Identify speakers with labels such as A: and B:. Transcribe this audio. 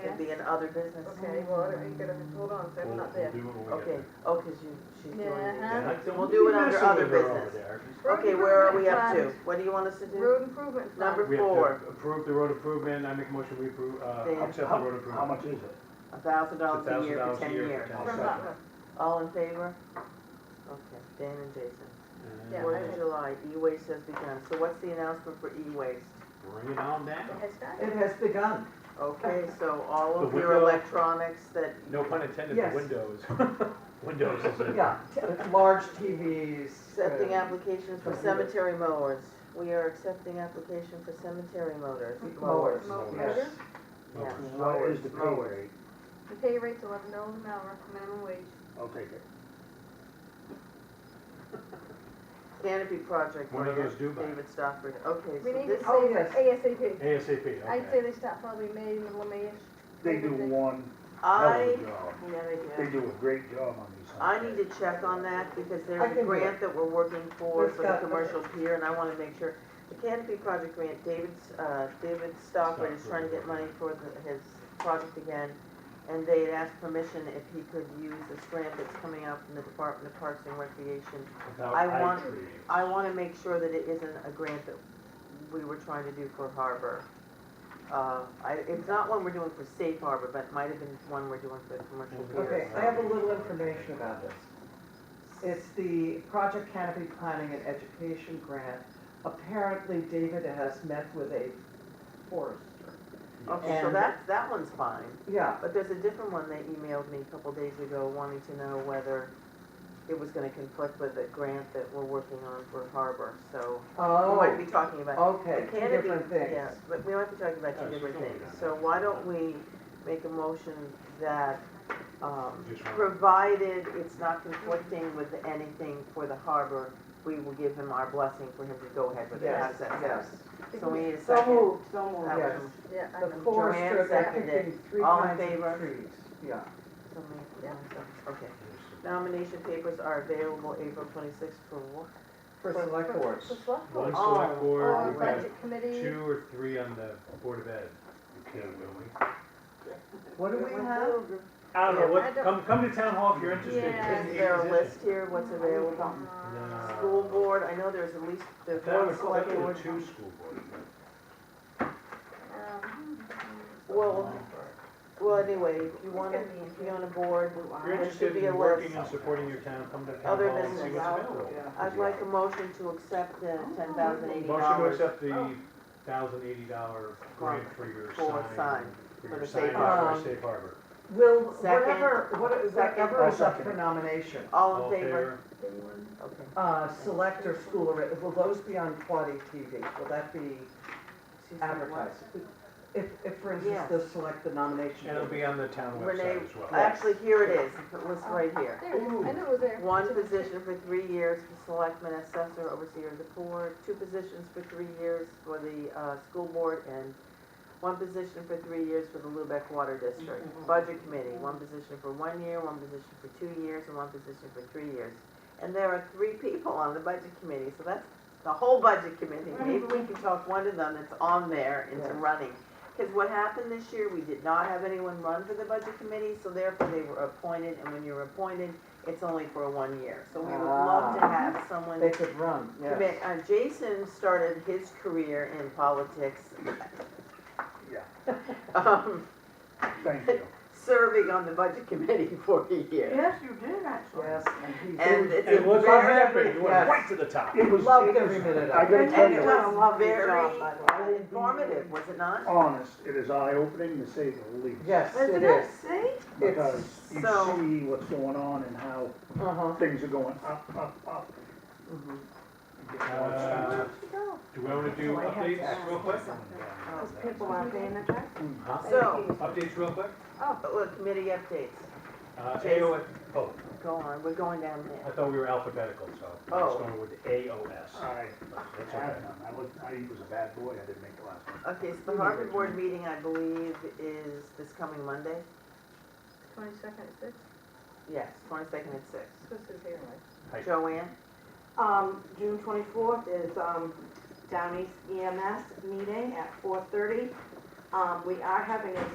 A: in other business.
B: Okay, well, are you gonna, hold on, so I'm
C: We'll,
B: not
C: we'll
B: there.
C: do it when we get
A: Okay,
C: there.
A: oh, cause you, she's doing
B: Yeah.
A: it.
C: Yeah,
D: Don't
A: we'll
D: be
A: do it under
D: messing with
A: other
D: her over
A: business.
D: there. She's-
B: Road
A: Okay, where are we up to?
B: improvement
A: What do you want us to
B: fund.
A: do?
B: Road improvement fund.
A: Number-
C: We have
A: Four.
C: to approve the road improvement, I make a motion we approve,
A: Then-
C: uh, accept the
D: How-
C: road improvement.
D: How much is it?
A: A thousand dollars a year
C: $1,000
A: for ten years.
C: for
B: From
C: 10 years.
B: Rutland.
A: All in favor? Okay, Dan and Jason.
C: And
B: Yeah,
A: Fourth
B: I
A: of
B: did.
A: July, e-waste has begun. So what's the announcement for e-waste?
C: Bring it on down.
B: The head guy?
E: It has begun.
A: Okay, so all of
C: The
A: your
C: window-
A: electronics that,
C: No pun intended,
E: Yes.
C: the windows. Windows is it.
E: Yeah, t- large TVs.
A: accepting
E: uh,
A: applications for
E: computer.
A: cemetery mowers. We are accepting application for cemetery mowers, mowers.
E: Mowers.
B: Mo-
E: Yes.
B: Motor?
A: Yeah.
D: What is the pay
A: Mowers.
D: rate?
B: The pay rate's eleven dollars an hour, minimum wage.
D: I'll take it.
A: Canopy project.
C: When are
A: grant,
C: those due by?
A: David Stockbridge. Okay,
B: We
A: so
B: need to
A: this,
E: Oh,
B: save ASAP.
C: ASAP,
B: I'd say
C: okay.
B: they start probably May, middle of May-ish.
D: They do one hell of
A: I,
D: a job.
A: yeah, they
D: They
A: do.
D: do a great job on these.
A: I need to check on that because
E: I
A: there's
E: can
A: a
E: do
A: grant that we're working for,
E: We've
A: for the
E: got-
A: commercial pier, and I wanna make sure. The Canopy Project grant, David's, uh, David Stockbridge is trying to get money for the, his project again. And they had asked permission if he could use this grant that's coming out from the Department of Parks and Recreation.
C: Without
A: I
C: eye
A: want-
C: cream.
A: I wanna make sure that it isn't a grant that we were trying to do for harbor. Uh, I, it's not one we're doing for safe harbor, but it might have been one we're doing for the commercial pier.
E: Okay,
A: so-
E: I have a little information about this. It's the Project Canopy Planning and Education Grant. Apparently David has met with a forester.
A: Okay, so
E: And-
A: that's, that one's fine,
E: Yeah,
A: but there's a different one they emailed me a couple days ago wanting to know whether it was gonna conflict with the grant that we're working on for harbor, so we might
E: oh,
A: be talking about.
E: okay,
A: It
E: two
A: can be-
E: different
A: Yeah,
E: things.
A: but we might be talking about
C: Oh,
A: two
C: she's
A: different
C: only
A: things,
C: done
A: so
C: that.
A: why don't we make a motion that, um,
C: Just one.
A: provided it's not conflicting with anything for the harbor, we will give him our blessing for him to go ahead with it,
E: Yes,
A: how's that sound?
E: yes.
A: So we need a
E: So
A: second.
E: moved, so moved,
A: That
E: yes.
A: was-
B: Yeah, I
E: The
B: know.
E: forester, they're
A: seconded.
E: picking three
A: All in
E: kinds
A: favor?
E: of trees, yeah.
A: Somebody- yeah, so- Okay. Nomination papers are available April twenty-sixth for what?
E: For
B: For-
E: select
B: for-
E: boards.
B: For select
C: One
B: board.
A: Oh,
C: select
B: Or
C: board,
A: oh,
C: we have
B: budget committee.
C: two or three on the Board of Ed. Okay, will we?
E: What do we have?
C: I don't
A: Yeah,
C: know,
B: I
C: what,
B: don't-
C: come, come to town hall if you're interested.
B: Yeah.
A: Is there a list here, what's available?
C: No.
A: School board, I know there's at least, there's
C: Uh, That
A: one
C: was,
A: select
C: that
A: board.
C: was two school boards.
B: Um,
A: Well, well, anyway, if you
B: It's
A: wanna
B: gonna be
A: be on a board,
C: If you're
A: there should
C: interested
A: be a
C: in working
A: list.
C: and supporting your town, come to town
A: Other
C: hall and see
A: business.
C: what's
D: Oh,
C: available.
A: I'd like a motion to accept the
E: Oh,
A: ten thousand eighty
C: Motion to
A: dollars Oh.
C: accept the thousand eighty dollar grant for your
A: For
C: sign.
A: sign,
C: for
A: for
C: your
A: the
C: sign
A: safe
C: for
E: harbor.
C: safe harbor.
E: Will,
A: Second.
E: whatever, what-
A: Second.
E: whatever is up for
D: Second.
E: nomination,
A: all in favor? Okay.
E: uh, select or school, or- will those be on Quaddy TV? Will that be
A: She said what?
E: advertised? If, if, for instance,
A: Yes.
E: they'll select the nomination.
C: And it'll be on the town
A: Renee,
C: website as well.
A: actually, here it is, it was right here.
B: There, it is. I knew it was there.
A: One position for three years for selectman assessor, overseer of the board, two positions for three years for the, uh, school board, and one position for three years for the Lubec Water District. Budget committee, one position for one year, one position for two years, and one position for three years. And there are three people on the budget committee, so that's the whole budget committee. Maybe we can talk one of them that's on there into
E: Yeah.
A: running. Because what happened this year, we did not have anyone run for the budget committee, so therefore they were appointed, and when you're appointed, it's only for one year, so we would love to
E: Ah.
A: have someone.
E: They could run,
A: to
E: yes.
A: make- uh, Jason started his career in politics,
D: Yeah,
A: um,
D: thank you.
A: serving on the budget committee for a year.
F: Yes, you did, actually.
E: Yes, and he's.
A: And it's a
C: And look what happened,
A: very,
C: you went
E: Yes.
C: right to the top.
D: It was.
E: Loved
D: it was-
E: every minute of it.
D: I gotta
F: And
D: tell
A: and
D: you.
A: it
F: You've done a
A: was
F: lovely job, by the way.
A: very informative, was it not?
D: honest, it is eye-opening to say the least.
E: Yes, it
F: Isn't
E: is.
F: it? See?
D: Because you
A: So-
D: see what's going on and how
E: Uh-huh.
D: things are going up, up, up.
E: mhm.
D: It gets more expensive.
C: Uh, Do we want to do
F: Oh, I have to
C: updates real quick?
F: Because people aren't paying attention.
C: Huh?
A: So,
C: Updates real quick?
A: uh, look, committee updates,
C: Uh,
A: Jason.
C: AOS, oh,
A: go on, we're going down
C: I
A: there.
C: thought we were alphabetical, so I was
A: Oh.
C: going with AOS.
D: I
C: That's
D: had
C: okay.
D: none. I was, I was a bad boy, I didn't make the last one.
A: Okay, so the Harvard Board meeting, I believe, is this coming Monday?
B: Twenty-second, six,
A: Yes, twenty-second at six.
B: this is here, right?
A: Joanne?
F: Um, June twenty-fourth is, um, E Down East EMS meeting at four thirty. Um, we are having a